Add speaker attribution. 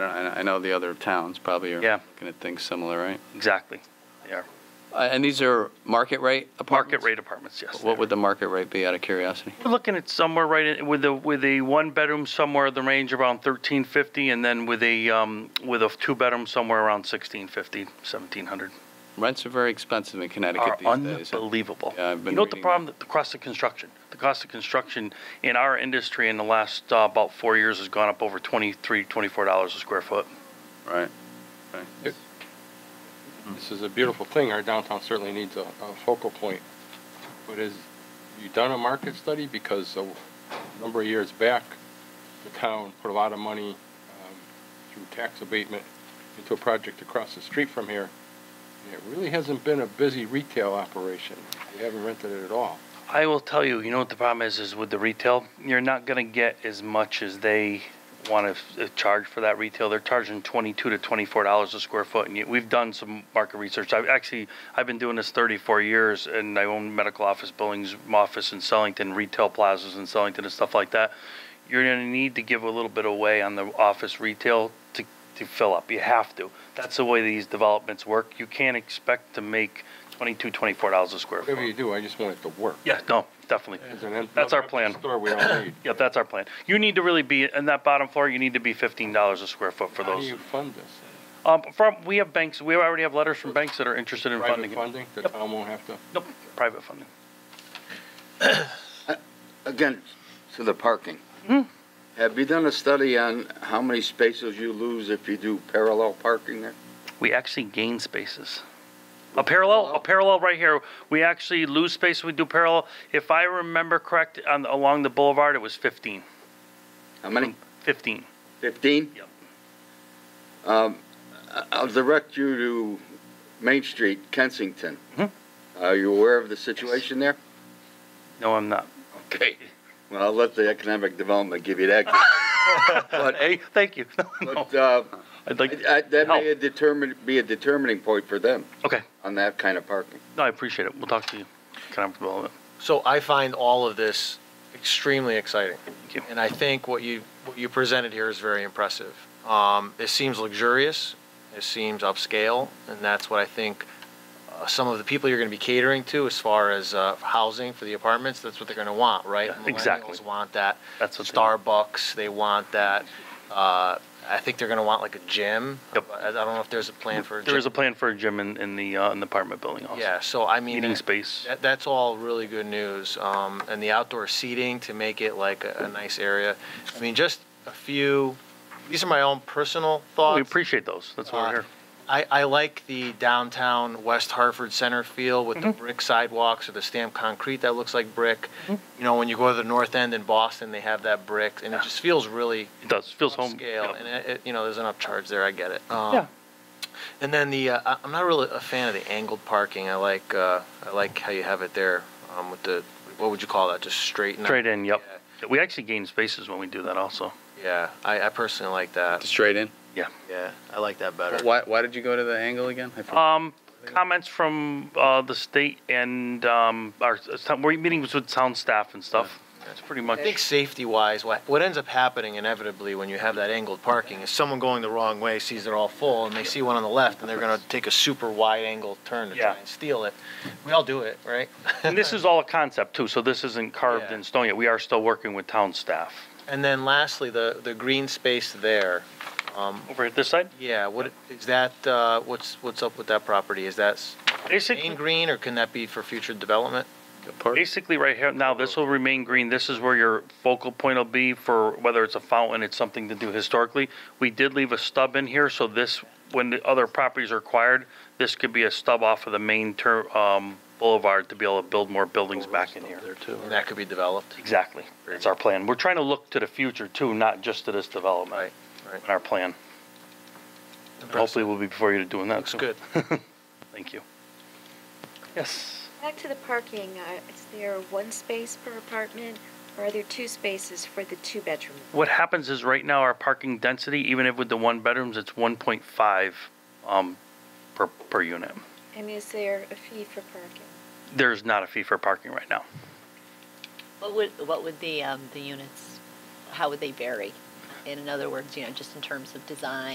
Speaker 1: I I know the other towns probably are
Speaker 2: Yeah.
Speaker 1: looking at things similar, right?
Speaker 2: Exactly. They are.
Speaker 1: Uh, And these are market rate
Speaker 2: Market
Speaker 1: apartments?
Speaker 2: rate apartments, yes.
Speaker 1: What would the market rate be, out of curiosity?
Speaker 2: We're looking at somewhere right in, with the, with a one bedroom somewhere in the range around thirteen fifty and then with a, um, with a two bedroom somewhere around sixteen fifty, seventeen hundred.
Speaker 1: Rents are very expensive in Connecticut
Speaker 2: Are
Speaker 1: these days.
Speaker 2: unbelievable.
Speaker 1: Yeah, I've been
Speaker 2: You know what the
Speaker 1: reading
Speaker 2: problem, the cost of construction, the cost of construction in our industry in the last, uh, about four years has gone up over twenty-three, twenty-four dollars a square foot.
Speaker 1: Right, right.
Speaker 2: Hmm.
Speaker 3: This is a beautiful thing. Our downtown certainly needs a, a focal point. But has you done a market study? Because a number of years back, the town put a lot of money um, through tax abatement into a project across the street from here. And it really hasn't been a busy retail operation. We haven't rented it at all.
Speaker 2: I will tell you, you know what the problem is, is with the retail, you're not gonna get as much as they wanna uh, charge for that retail. They're charging twenty-two to twenty-four dollars a square foot, and yet we've done some market research. I've actually, I've been doing this thirty-four years, and I own medical office buildings, office in Sellington, retail plazas in Sellington and stuff like that. You're gonna need to give a little bit away on the office retail to, to fill up. You have to. That's the way these developments work. You can't expect to make twenty-two, twenty-four dollars a square foot.
Speaker 3: Whatever you do, I just want it to work.
Speaker 2: Yeah, no, definitely.
Speaker 3: There's an empty-
Speaker 2: That's our
Speaker 3: empty
Speaker 2: plan.
Speaker 3: Store we don't need.
Speaker 2: Yeah, that's our plan. You need to really be, in that bottom floor, you need to be fifteen dollars a square foot for
Speaker 3: How do
Speaker 2: those.
Speaker 3: you fund this?
Speaker 2: Um, from, we have banks, we already have letters from banks that are interested in funding
Speaker 3: Private
Speaker 2: it.
Speaker 3: funding? The
Speaker 2: Yep.
Speaker 3: town won't have to?
Speaker 2: Nope, private funding.
Speaker 4: Again, to the parking.
Speaker 2: Hmm.
Speaker 4: Have you done a study on how many spaces you lose if you do parallel parking there?
Speaker 2: We actually gain spaces. A parallel, a parallel right here, we actually lose space, we do parallel. If I remember correct, on, along the boulevard, it was fifteen.
Speaker 4: How many?
Speaker 2: Fifteen.
Speaker 4: Fifteen?
Speaker 2: Um, Yep.
Speaker 4: Um, I- I'll direct you to Main Street, Kensington.
Speaker 2: Mhm.
Speaker 4: Are you aware of the situation there?
Speaker 2: No, I'm not.
Speaker 4: Okay. Well, I'll let the economic development give you that. But,
Speaker 2: Hey, thank you. No,
Speaker 4: but, uh,
Speaker 2: I'd like,
Speaker 4: I- I- that may
Speaker 2: Help.
Speaker 4: determine, be a determining point for them
Speaker 2: okay,
Speaker 4: on that kind of parking.
Speaker 2: no, I appreciate it. We'll talk to you. Can I, well,
Speaker 5: So I find all of this extremely exciting.
Speaker 2: Thank you.
Speaker 5: And I think what you, what you presented here is very impressive. Um, it seems luxurious, it seems upscale, and that's what I think uh, some of the people you're going to be catering to as far as uh, housing for the apartments, that's what they're going to want, right?
Speaker 2: Yeah, exactly.
Speaker 5: Millennials want that.
Speaker 2: That's what they
Speaker 5: Starbucks, they want that. Uh, I think they're going to want like a gym.
Speaker 2: Yep.
Speaker 5: I I don't know if there's a plan for a
Speaker 2: There
Speaker 5: gym.
Speaker 2: is a plan for a gym in, in the, uh, in the apartment building also.
Speaker 5: Yeah, so I mean.
Speaker 2: Meeting
Speaker 5: that-
Speaker 2: space.
Speaker 5: That, that's all really good news. Um, and the outdoor seating to make it like a, a nice area. I mean, just a few, these are my own personal thoughts.
Speaker 2: We appreciate those. That's why we're
Speaker 5: Uh,
Speaker 2: here.
Speaker 5: I, I like the downtown West Hartford center feel with
Speaker 2: Mm-hmm.
Speaker 5: the brick sidewalks or the stamped concrete that looks like brick. You know, when you go to the north end in Boston, they have that brick and it just feels really
Speaker 2: It does. Feels home.
Speaker 5: scale.
Speaker 2: yeah.
Speaker 5: And it, it, you know, there's an upcharge there. I get it. Um,
Speaker 2: Yeah.
Speaker 5: And then the uh, I- I'm not really a fan of the angled parking. I like uh, I like how you have it there um, with the what would you call that? Just straight. and-
Speaker 2: Straight in, yep. We actually gain spaces when we do that also.
Speaker 5: Yeah, I, I personally like that.
Speaker 1: Straight in?
Speaker 5: Yeah, I like that better.
Speaker 1: Why, why did you go to the angle again? I forgot.
Speaker 2: Um, comments from, uh, the state and, um, our, we're meeting with sound staff and stuff. That's pretty much.
Speaker 5: I think safety wise, what, what ends up happening inevitably when you have that angled parking is someone going the wrong way sees they're all full and they see one on the left and they're going to take a super wide angle turn to
Speaker 2: Yeah.
Speaker 5: try and steal it. We all do it, right?
Speaker 2: And this is all a concept too, so this isn't carved
Speaker 5: Yeah.
Speaker 2: in stone yet. We are still working with town staff.
Speaker 5: And then lastly, the, the green space there. Um,
Speaker 2: Over at this side?
Speaker 5: yeah, what is that? Uh, what's what's up with that property? Is that s- main
Speaker 2: Basically,
Speaker 5: green or can that be for future development?
Speaker 2: basically right here, now this will remain green. This is where your focal point will be for whether it's a fountain, it's something to do historically. We did leave a stub in here, so this, when the other properties are acquired, this could be a stub off of the main ter, um, boulevard to be able to build more buildings back in here.
Speaker 5: And that could be developed.
Speaker 2: Exactly. That's our plan. We're trying to look to the future too, not just to this development.
Speaker 5: Right, right.
Speaker 2: In Our plan. Hopefully we'll be before you to doing that.
Speaker 5: Looks
Speaker 2: too.
Speaker 5: good.
Speaker 2: Thank you. Yes.
Speaker 6: Back to the parking, uh, is there one space per apartment, or are there two spaces for the two-bedroom?
Speaker 2: What happens is right now our parking density, even if with the one bedrooms, it's one point five, um, per, per unit.
Speaker 6: And is there a fee for parking?
Speaker 2: There's not a fee for parking right now.
Speaker 7: What would, what would the, um, the units, how would they vary? In other words, you know, just in terms of design